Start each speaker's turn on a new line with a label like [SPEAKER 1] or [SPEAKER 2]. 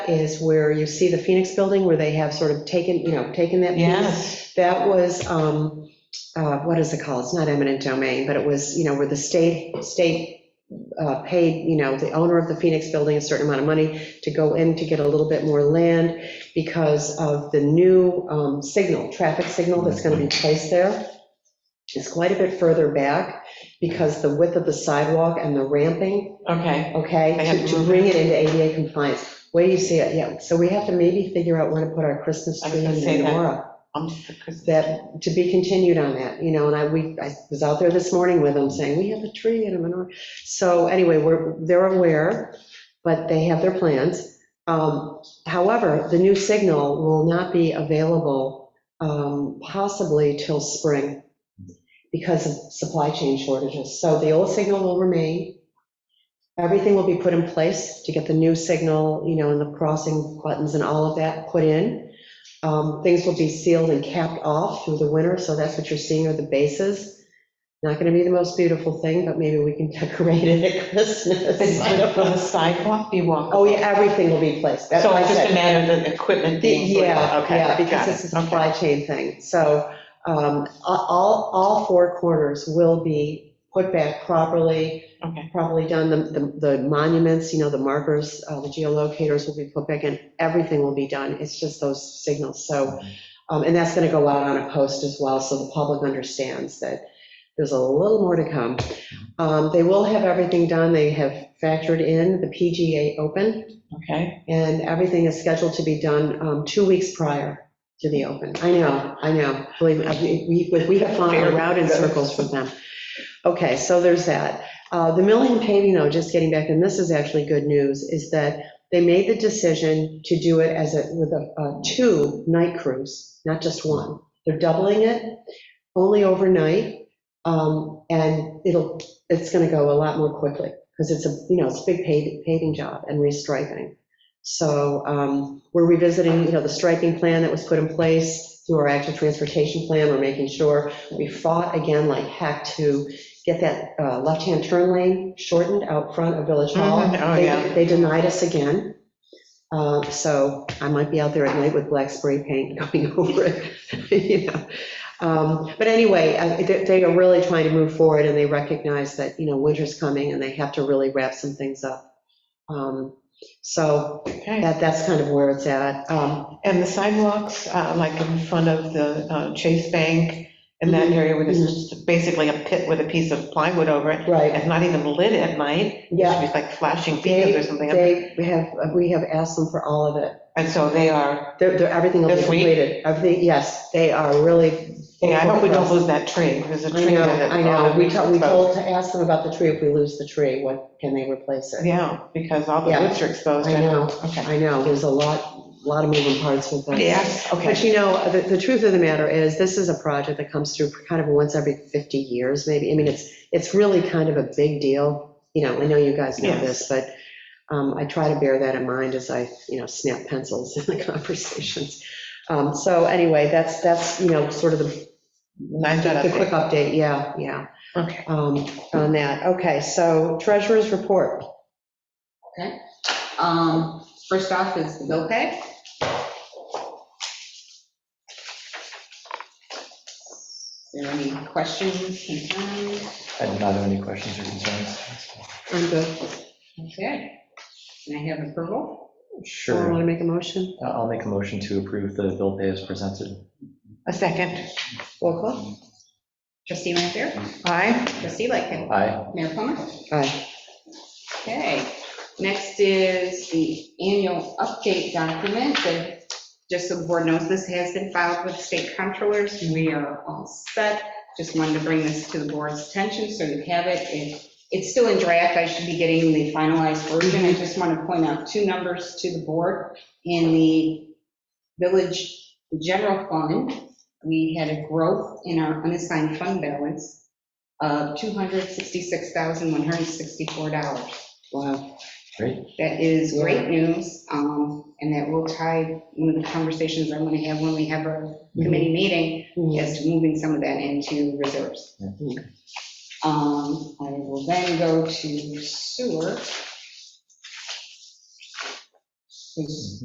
[SPEAKER 1] is where you see the Phoenix Building, where they have sort of taken, you know, taken that piece. That was, um, uh, what is it called? It's not eminent domain, but it was, you know, where the state, state uh, paid, you know, the owner of the Phoenix Building a certain amount of money to go in to get a little bit more land because of the new um, signal, traffic signal that's going to be placed there. It's quite a bit further back because the width of the sidewalk and the ramping
[SPEAKER 2] Okay,
[SPEAKER 1] okay,
[SPEAKER 2] They have
[SPEAKER 1] to-
[SPEAKER 2] to
[SPEAKER 1] to
[SPEAKER 2] move
[SPEAKER 1] bring it into ADA compliance. Where do you see it? Yeah, so we have to maybe figure out when to put our Christmas
[SPEAKER 2] I was
[SPEAKER 1] tree
[SPEAKER 2] gonna
[SPEAKER 1] in
[SPEAKER 2] say
[SPEAKER 1] the
[SPEAKER 2] that.
[SPEAKER 1] menorah.
[SPEAKER 2] I'm just, because
[SPEAKER 1] That, to be continued on that, you know, and I, we, I was out there this morning with them saying, we have a tree and a menorah. So anyway, we're, they're aware, but they have their plans. Um, However, the new signal will not be available um, possibly till spring because of supply chain shortages. So the old signal will remain. Everything will be put in place to get the new signal, you know, and the crossing buttons and all of that put in. Um, Things will be sealed and capped off through the winter, so that's what you're seeing are the bases. Not going to be the most beautiful thing, but maybe we can decorate it at Christmas. I don't
[SPEAKER 2] will
[SPEAKER 1] know.
[SPEAKER 2] the sidewalk be walkable?
[SPEAKER 1] Oh, yeah, everything will be placed. That's
[SPEAKER 2] So
[SPEAKER 1] what I
[SPEAKER 2] it's just a
[SPEAKER 1] said.
[SPEAKER 2] matter of the equipment
[SPEAKER 1] The-
[SPEAKER 2] being.
[SPEAKER 1] Yeah,
[SPEAKER 2] Okay,
[SPEAKER 1] yeah,
[SPEAKER 2] got
[SPEAKER 1] because
[SPEAKER 2] it.
[SPEAKER 1] it's a
[SPEAKER 2] Okay.
[SPEAKER 1] supply chain thing. So um, all, all four corners will be put back properly,
[SPEAKER 2] Okay,
[SPEAKER 1] properly done. The- The the monuments, you know, the markers, uh, the geolocators will be put back in. Everything will be done. It's just those signals. So, um, and that's going to go out on a post as well, so the public understands that there's a little more to come. Um, They will have everything done. They have factored in the PGA Open.
[SPEAKER 2] okay.
[SPEAKER 1] And everything is scheduled to be done um, two weeks prior to the open. I know, I know, believe me, I- we- we we have gone around in circles with them. Okay, so there's that. Uh, The milling and paving, though, just getting back, and this is actually good news, is that they made the decision to do it as a, with a a two night cruise, not just one. They're doubling it, only overnight, um, and it'll, it's going to go a lot more quickly, because it's a, you know, it's a big paving paving job and restriping. So um, we're revisiting, you know, the striping plan that was put in place through our active transportation plan. We're making sure we fought again like heck to get that uh, left-hand turn lane shortened out front of Village Hall.
[SPEAKER 2] Mhm, oh,
[SPEAKER 1] They-
[SPEAKER 2] yeah.
[SPEAKER 1] They denied us again. Uh, So I might be out there at night with black spray paint going over it, you know. Um, But anyway, I- they they are really trying to move forward and they recognize that, you know, winter's coming and they have to really wrap some things up. Um, So
[SPEAKER 2] Okay.
[SPEAKER 1] that, that's kind of where it's at. Um,
[SPEAKER 2] And the sidewalks, uh, like in front of the uh, Chase Bank and
[SPEAKER 1] Mm-hmm.
[SPEAKER 2] that area where there's just basically a pit with a piece of plywood over it.
[SPEAKER 1] Right,
[SPEAKER 2] It's not even lit at night. It should
[SPEAKER 1] yeah.
[SPEAKER 2] be like flashing beacons or
[SPEAKER 1] They,
[SPEAKER 2] something.
[SPEAKER 1] they we have, we have asked them for all of it.
[SPEAKER 2] And so they are,
[SPEAKER 1] They're, they're, everything will be
[SPEAKER 2] This week?
[SPEAKER 1] completed. Everything, yes, they are really.
[SPEAKER 2] yeah, I hope we don't lose that tree. There's a
[SPEAKER 1] I
[SPEAKER 2] tree
[SPEAKER 1] know,
[SPEAKER 2] that.
[SPEAKER 1] I know. We told, we told to ask them about the tree. If we lose the tree, what, can they replace it?
[SPEAKER 2] Yeah, because all the
[SPEAKER 1] Yeah.
[SPEAKER 2] woods are exposed.
[SPEAKER 1] I know.
[SPEAKER 2] Okay.
[SPEAKER 1] I know, there's a lot, lot of moving parts with that.
[SPEAKER 2] Yes, okay.
[SPEAKER 1] But you know, the, the truth of the matter is, this is a project that comes through kind of once every 50 years, maybe. I mean, it's, it's really kind of a big deal. You know, I know you guys know this, but um, I try to bear that in mind as I, you know, snap pencils in the conversations. Um, So anyway, that's, that's, you know, sort of the,
[SPEAKER 2] Nice job.
[SPEAKER 1] the quick update, yeah, yeah,
[SPEAKER 2] Okay.
[SPEAKER 1] um, on that. Okay, so treasurer's report.
[SPEAKER 3] Um, First off is the bill pay. Is there any questions, concerns?
[SPEAKER 4] I do not have any questions or concerns.
[SPEAKER 1] I'm good.
[SPEAKER 3] Okay. Can I have approval?
[SPEAKER 1] Want
[SPEAKER 4] Sure,
[SPEAKER 1] to make a motion?
[SPEAKER 4] Uh, I'll make a motion to approve the bill pay as presented.
[SPEAKER 2] A second.
[SPEAKER 1] Roll call?
[SPEAKER 3] Trustee Lanfair?
[SPEAKER 2] Aye.
[SPEAKER 3] Trustee Lightfoot?
[SPEAKER 4] Aye,
[SPEAKER 3] Mayor Plummer?
[SPEAKER 1] Aye.
[SPEAKER 3] Okay. Next is the annual update document. And Just so the board knows, this has been filed with state controllers. We are all set. Just wanted to bring this to the board's attention so you have it. It- It's still in draft. I should be getting the finalized version. I just want to point out two numbers to the board. In the village general fund, we had a growth in our unassigned fund balance of $266,164.
[SPEAKER 1] Wow.
[SPEAKER 4] great.
[SPEAKER 3] That is great news, um, and that will tie one of the conversations I'm going to have when we have our committee meeting, as to moving some of that into reserves.
[SPEAKER 1] Mhm.
[SPEAKER 3] Um, I will then go to sewer.
[SPEAKER 1] Please.